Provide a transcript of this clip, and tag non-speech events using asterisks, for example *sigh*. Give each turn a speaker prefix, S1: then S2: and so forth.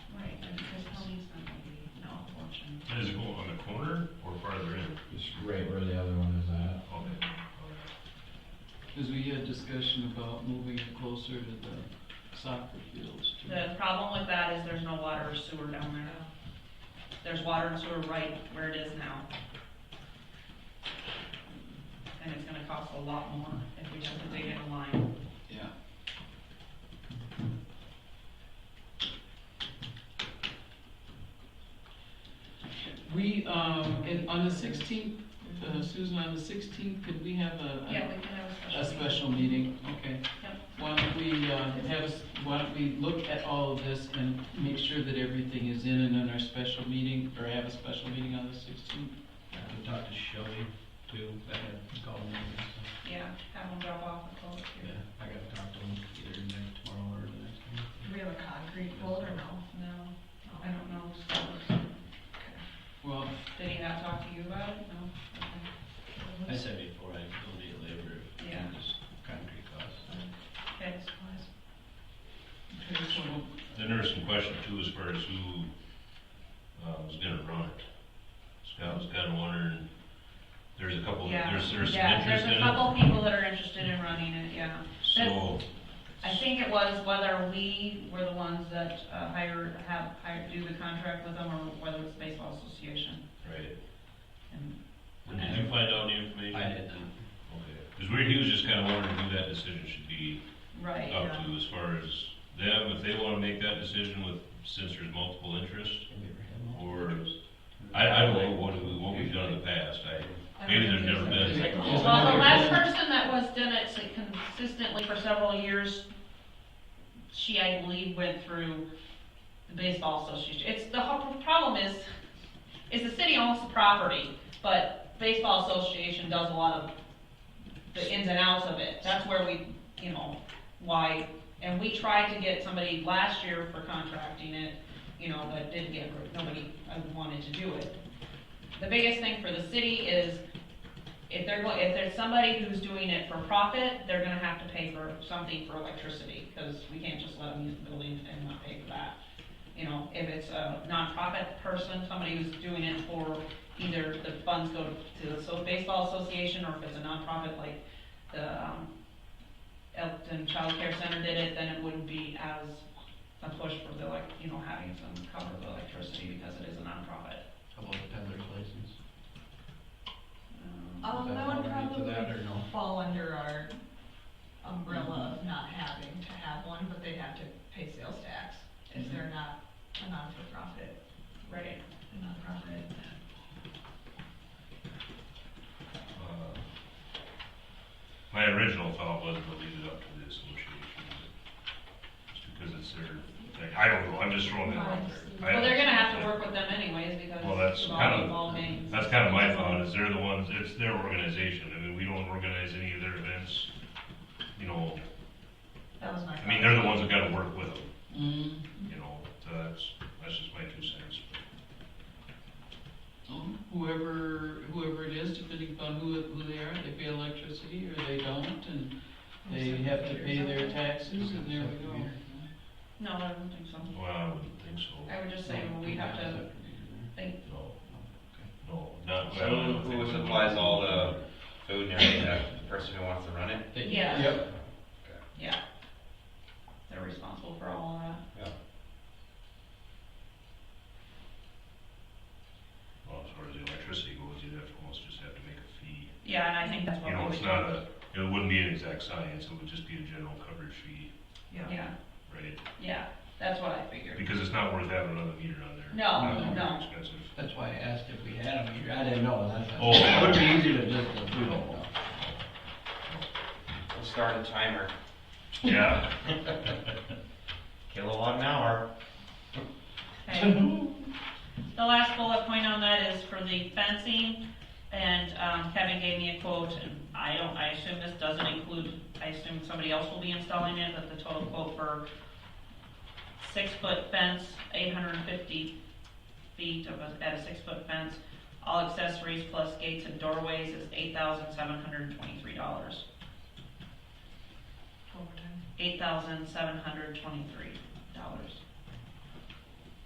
S1: is.
S2: right where the other one is at.
S1: Okay.
S3: Because we had discussion about moving it closer to the soccer fields. too.
S4: The problem with that is there's no water or sewer down there. There's water and sewer right where it is now. And it's gonna cost a lot more if we just dig in a line.
S3: Yeah. We, um, and on the sixteenth, uh, Susan, on the sixteenth, could we have a? a-
S4: we can have
S3: A special meeting, okay.
S4: Yep.
S3: Why don't we, uh, have, us- why don't we look at all of this and make sure that everything is in and on our special meeting, or have a special meeting on the sixteenth?
S2: I talked to Shelby too, I had called him, so,
S4: Yeah, have them drop off the culvert
S2: yeah,
S4: here.
S2: I gotta talk to him either next tomorrow or the next day.
S5: Do we have a concrete quote or no?
S4: No, I don't know. so-
S3: Well,
S4: Did he not talk to you about it? No? Okay.
S2: I said before, I donate labor,
S4: Yeah.
S2: and just concrete costs.
S4: Okay.
S3: okay, so
S1: Then there was some question too, as far as who, uh, was gonna run it. Scott was kinda wondering, there's a couple,
S4: Yeah,
S1: there's, there's some
S4: yeah,
S1: interest in
S4: There's a
S1: it,
S4: couple people that are interested in running it, yeah.
S1: so,
S4: I think it was whether we were the ones that uh, hired, have, hired, do the contract with them, or whether it's baseball association.
S1: right.
S4: And
S1: When did you find out the information?
S2: I did not.
S1: Okay, cause we, he was just kinda wondering who that decision should be
S4: Right,
S1: up
S4: yeah.
S1: to, as far as them, if they wanna make that decision with, since there's multiple interests,
S2: Have you ever had one?
S1: or, I, I don't know what, we- what we've done in the past, I, Maybe there's never been.
S4: Well, the last person that was done it so consistently for several years, she, I believe, went through the baseball association. It's, the whole problem is, is the city owns the property, but baseball association does a lot of the ins and outs of it. That's where we, you know, why, and we tried to get somebody last year for contracting it, you know, but didn't get, nobody uh, wanted to do it. The biggest thing for the city is if they're, go- if there's somebody who's doing it for profit, they're gonna have to pay for something for electricity, because we can't just let them use the building and not pay for that. You know, if it's a nonprofit person, somebody who's doing it for either the funds go to the so- baseball association, or if it's a nonprofit like the, um, Elton Child Care Center did it, then it wouldn't be as a push for the, like, you know, having some cover of electricity, because it is a nonprofit.
S2: How about the peddler's license?
S4: Um,
S5: Um,
S2: Does
S5: that
S2: that
S5: would
S2: fall into
S5: probably
S2: that or no?
S5: fall under our umbrella
S1: Mm-hmm.
S5: of not having to have one, but they have to pay sales tax if
S3: Mhm.
S5: they're
S1: Mm-hmm.
S5: not a non-for-profit,
S4: Right.
S5: a nonprofit.
S1: Uh, My original thought was to leave it up to the association, but just because it's their, thing. I don't know, I'm just throwing that out there. I-
S4: Well, they're gonna have to work with them anyways because
S1: Well, that's
S4: it's
S1: kind
S4: all, all
S1: of-
S4: games.
S1: That's kind of my thought, is they're the ones, it's their organization, I mean, we don't organize any of their events, you know,
S5: That was my.
S1: I mean, they're the ones that gotta work with them,
S3: Mm,
S1: you know, so that's, that's just my two cents.
S3: um, whoever, whoever it is, depending upon who, who they are, they pay electricity or they don't, and they have to pay their taxes, and there we go.
S4: No, I don't think so.
S1: Well, I wouldn't think so,
S4: I would just say, well, we have to think,
S1: no, no, not.
S6: So who supplies all the food and everything, that the person who wants to run it?
S2: They-
S4: Yeah.
S3: Yep.
S4: yeah. They're responsible for all of that.
S1: Well, as far as the electricity goes, you'd have to almost just have to make a fee.
S4: Yeah, and I think that's what
S1: You
S4: we
S1: know,
S4: would
S1: it's
S4: do.
S1: not a, it wouldn't be an exact science, it would just be a general coverage fee,
S5: Yeah.
S4: Yeah,
S1: right?
S4: yeah, that's what I
S1: *laughs*
S4: figured.
S1: Because it's not worth having another meter on there.
S4: No,
S1: Not very
S4: no.
S1: Expensive.
S2: That's why I asked if we had them here, I didn't know, that's.
S1: Oh.
S2: It would be easier to just do it.
S6: We'll start a timer.
S1: Yeah,
S6: Kilowatt an hour.
S4: Okay. The last bullet point on that is for the fencing and, um, Kevin gave me a quote and I don't, I assume this doesn't include, I assume somebody else will be installing it, but the total quote for six foot fence, eight hundred and fifty feet of a, at a six foot fence, all accessories plus gates and doorways is eight thousand seven hundred and twenty-three dollars.
S5: Overtime.
S4: Eight thousand seven hundred twenty-three dollars.